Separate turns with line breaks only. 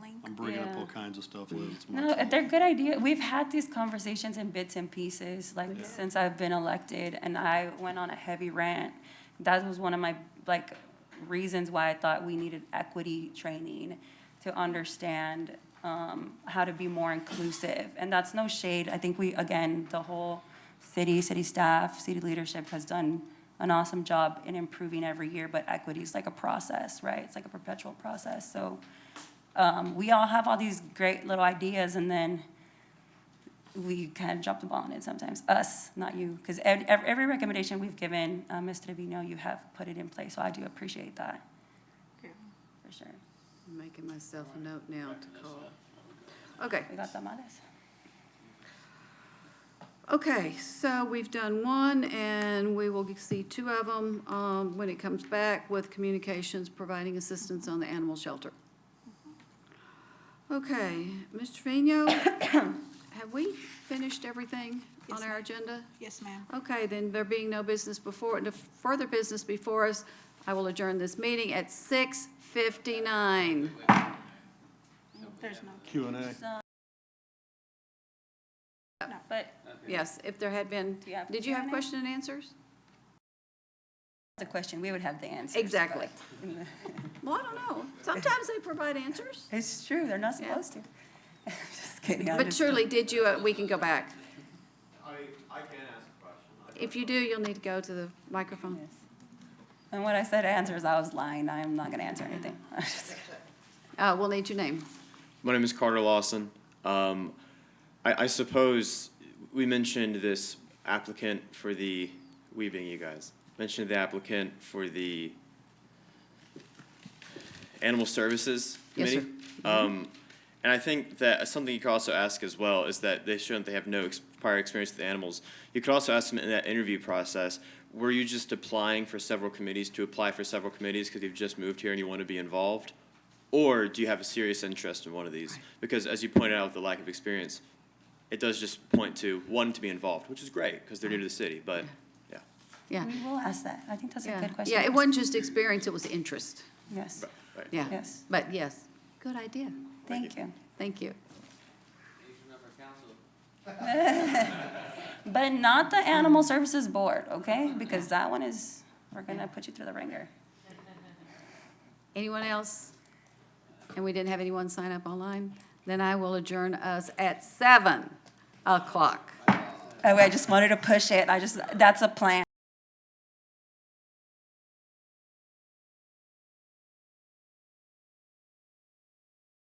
kinds of stuff live. It's
No,
much-
they're good idea. We've had these conversations in bits and pieces, like since I've been elected, and I went on a heavy rant. That was one of my like reasons why I thought we needed equity training to understand um, how to be more inclusive. And that's no shade. I think we again the whole city, city staff, city leadership has done an awesome job in improving every year. But equity is like a process, right? It's like a perpetual process. So um, we all have all these great little ideas and then we kind of drop the ball on it sometimes, us, not you. Because every, every recommendation we've given, uh, Ms. Trevino, you have put it in place, so I do appreciate that. For sure.
I'm making myself a note now to call. Okay,
We got tamales.
okay, so we've done one, and we will see two of them um, when it comes back with communications, providing assistance on the animal shelter. Okay, Ms. Trevino, have we finished everything on
Yes,
our agenda?
Yes, ma'am.
Okay, then there being no business before, no further business before us, I will adjourn this meeting at 6:59.
There's no.
Q and A.
But
Yes, if there had been,
you have
did you have
Q&A?
question and answers?
the question, we would have the answer.
Exactly. Well, I don't know. Sometimes they provide answers.
It's true, they're not
Yeah.
supposed to. Just kidding. I'm
But
just-
truly, did you, uh, we can go back.
I, I can ask a question. I-
If you do, you'll need to go to the microphone.
Yes. And when I said answers, I was lying. I am not going to answer anything.
Uh, We'll need your name.
My name is Carter Lawson. Um, I, I suppose we mentioned this applicant for the, we being you guys, mentioned the applicant for the Animal Services
Yes, sir.
Committee. Um, and I think that something you could also ask as well is that they shouldn't, they have no ex- prior experience with animals. You could also ask them in that interview process, were you just applying for several committees to apply for several committees because you've just moved here and you want to be involved? Or do you have a serious interest in one of these? Because as you pointed out, with the lack of experience, it does just point to one to be involved, which is great because they're new to the city, but yeah.
Yeah.
We will ask that. I think that's a
yeah.
good question.
Yeah, it wasn't just experience, it was interest.
Yes,
Right, right.
Yeah.
Yes.
But yes, good idea.
thank you.
Thank you.
But not the Animal Services Board, okay? Because that one is, we're gonna put you through the ringer.
Anyone else? And we didn't have anyone sign up online? Then I will adjourn us at 7 o'clock.
Oh, I just wanted to push it. I just, that's a plan.